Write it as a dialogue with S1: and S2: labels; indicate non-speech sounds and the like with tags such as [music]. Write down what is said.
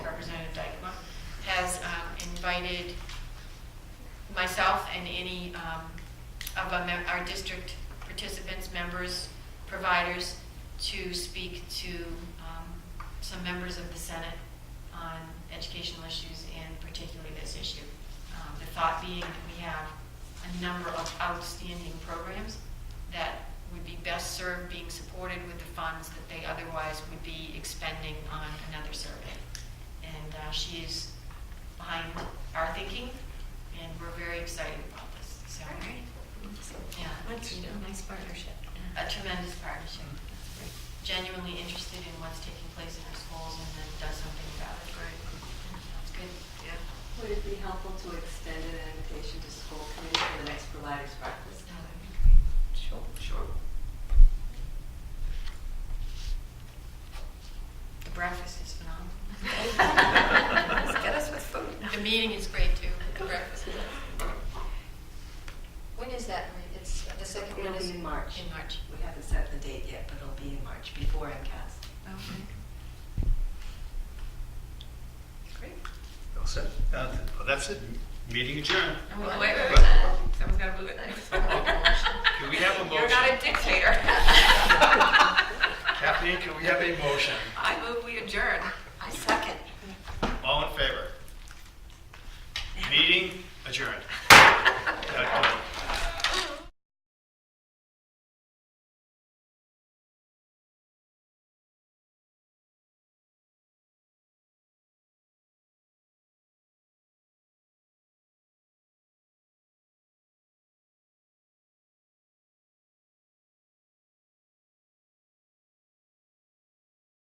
S1: um, invited myself and any um, of our mem- our district participants, members, providers, to speak to um, some members of the Senate on educational issues and particularly this issue. Um, The thought being that we have a number of outstanding programs that would be best served being supported with the funds that they otherwise would be expending on another survey. And uh, she is behind our thinking, and we're very excited about this. So, yeah,
S2: That's a nice partnership.
S1: a tremendous partnership. Genuinely interested in what's taking place in our schools and then does something about it. It's good. Yeah.
S3: Would it be helpful to extend an invitation to school committee for the next providers breakfast?
S1: No, that'd be great.
S2: Sure.
S3: Sure.
S1: The breakfast is [laughs] phenomenal.
S2: Let's get us with food.
S1: The meeting is great too, the breakfast.
S2: When is that, Marie? It's the second one
S3: It'll
S2: is.
S3: be in March.
S1: In March.
S3: We haven't set the date yet, but it'll be in March, before MCAS.
S2: Oh,
S1: Great.
S4: All set. Uh, th- well, That's it. Meeting adjourned.
S1: And we-
S2: Wait,
S1: wait, wait,
S4: wait.
S2: Someone's got to move it.
S4: Can we have a motion?
S2: You're not a dictator.
S4: Kathleen, can we have a motion?
S2: I move we [laughs]